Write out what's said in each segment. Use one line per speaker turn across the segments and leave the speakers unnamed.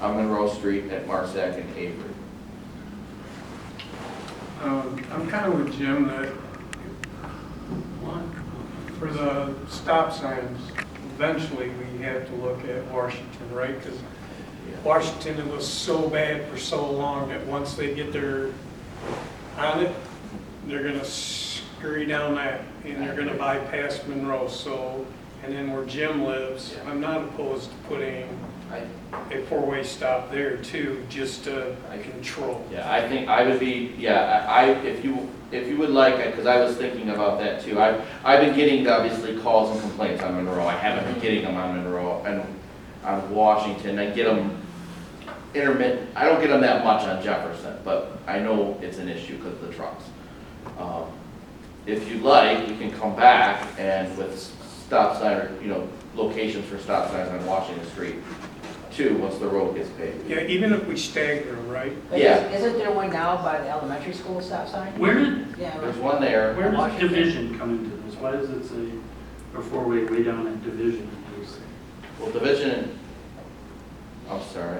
on Monroe Street at Marsack and Avery.
Um, I'm kind of with Jim that for the stop signs, eventually we have to look at Washington, right? Because Washington, it was so bad for so long that once they get their, on it, they're gonna scurry down that and they're gonna bypass Monroe, so, and then where Jim lives, I'm not opposed to putting
I,
a four-way stop there too, just to control.
yeah, I think I would be, yeah, I, I- if you, if you would like, because I was thinking about that too. I've, I've been getting obviously calls and complaints on Monroe. I haven't been getting them on Monroe and on Washington. I get them intermittent, I don't get them that much on Jefferson, but I know it's an issue because of the trucks. Um, If you like, you can come back and with stop sign, or you know, locations for stop signs on Washington Street too, once the road gets paved.
Yeah, even if we stagger, them, right?
But
Yeah.
is- Isn't there one now by the elementary school stop sign?
Where did,
Yeah.
There's one there.
where does
Washington.
division come into this? Why does it say a four-way way down at division?
Well, division, I'm sorry.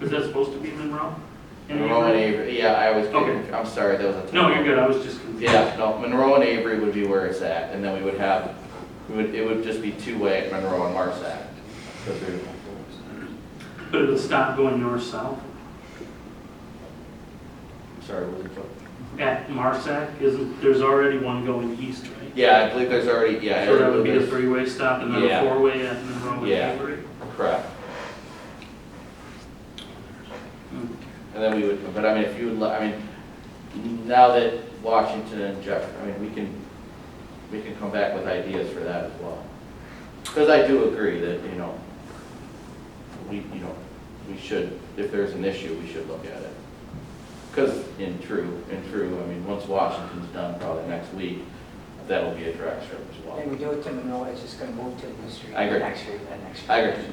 Is that supposed to be Monroe? In
Monroe and
April?
Avery, yeah, I was,
Okay.
I'm sorry, that was a.
No, you're good, I was just confused.
Yeah, no, Monroe and Avery would be where it's at, and then we would have, we would, it would just be two-way at Monroe and Marsack.
But it'll stop going north-south?
I'm Sorry, what was it?
At Marsac, isn't, there's already one going east, right?
Yeah, I believe there's already, yeah.
So that would be a
there's-
three-way stop and then
Yeah.
a four-way at Monroe and
Yeah.
Avery?
Correct.
Hmm.
And then we would, but I mean, if you would, li- I mean, now that Washington and Jeff, I mean, we can, we can come back with ideas for that as well. Because I do agree that, you know, we, you know, we should, if there's an issue, we should look at it. Because in true, in true, I mean, once Washington's done, probably next week, that'll be a direct strip as
When
well.
we do it to Monroe, it's just gonna move to the street.
I agree.
Next street, that next street.
I agree.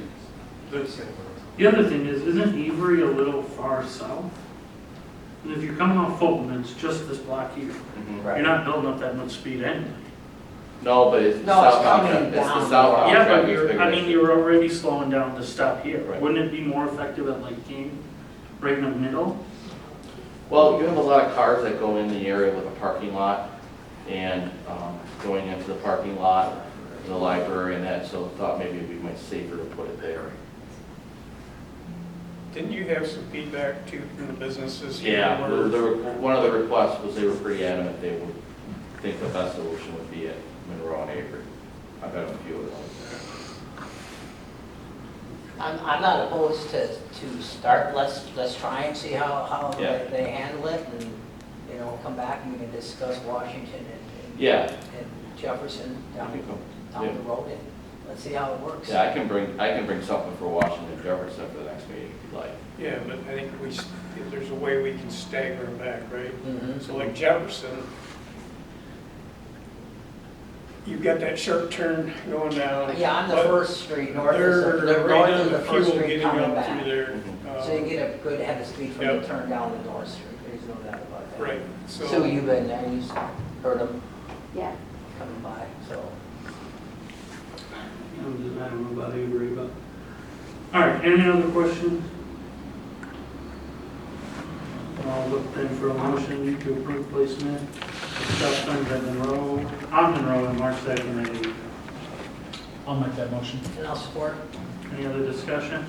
That's it.
The other thing is, isn't Avery a little far south? And if you're coming off Fulton, it's just this block here.
Mhm.
You're
Right.
not building up that much speed anyway.
No, but it's
No, it's
southbound,
coming
tra- it's the
down.
southbound
Yeah, but
traffic's
you're, I
bigger
mean,
issue.
you're already slowing down to stop here.
Right.
Wouldn't it be more effective at like King, right in the middle?
Well, you have a lot of cars that go in the area with a parking lot and um, going into the parking lot, the library and that, so thought maybe it'd be much safer to put it there.
Didn't you have some feedback too from the businesses? here?
Yeah, the-
Where-
the re- one of the requests was they were pretty adamant they would think the best solution would be at Monroe and Avery. I've had a few of those.
I'm, I'm not opposed to, to start, let's, let's try and see how, how
Yeah.
they they handle it and, you know, come back and we can discuss Washington and- and,
Yeah,
and Jefferson
I
down,
can come-
down the road and let's see how it works.
yeah, I can bring, I can bring something for Washington Jefferson for the next meeting if you'd like.
Yeah, but I think we, s- if there's a way we can stagger them back, right?
Mhm.
So like Jefferson, you've got that sharp turn going down.
Yeah, on the
but
first street, north
They're,
is, the-
they're right
north
on
is
the
the first
fuel
street
getting
coming
up through
back.
there. uh,
So you get a good head of speed from the
Yep.
turn down the north street, there's no doubt about that.
Right,
So
so,
you've been there, you've heard them
Yeah,
coming by, so.
I don't know, I don't know about Avery, but. All right, any other questions? I'll look then for a motion to approve placement of stop signs at Monroe, on Monroe and March second and eighth.
I'll make that motion.
And I'll support.
Any other discussion?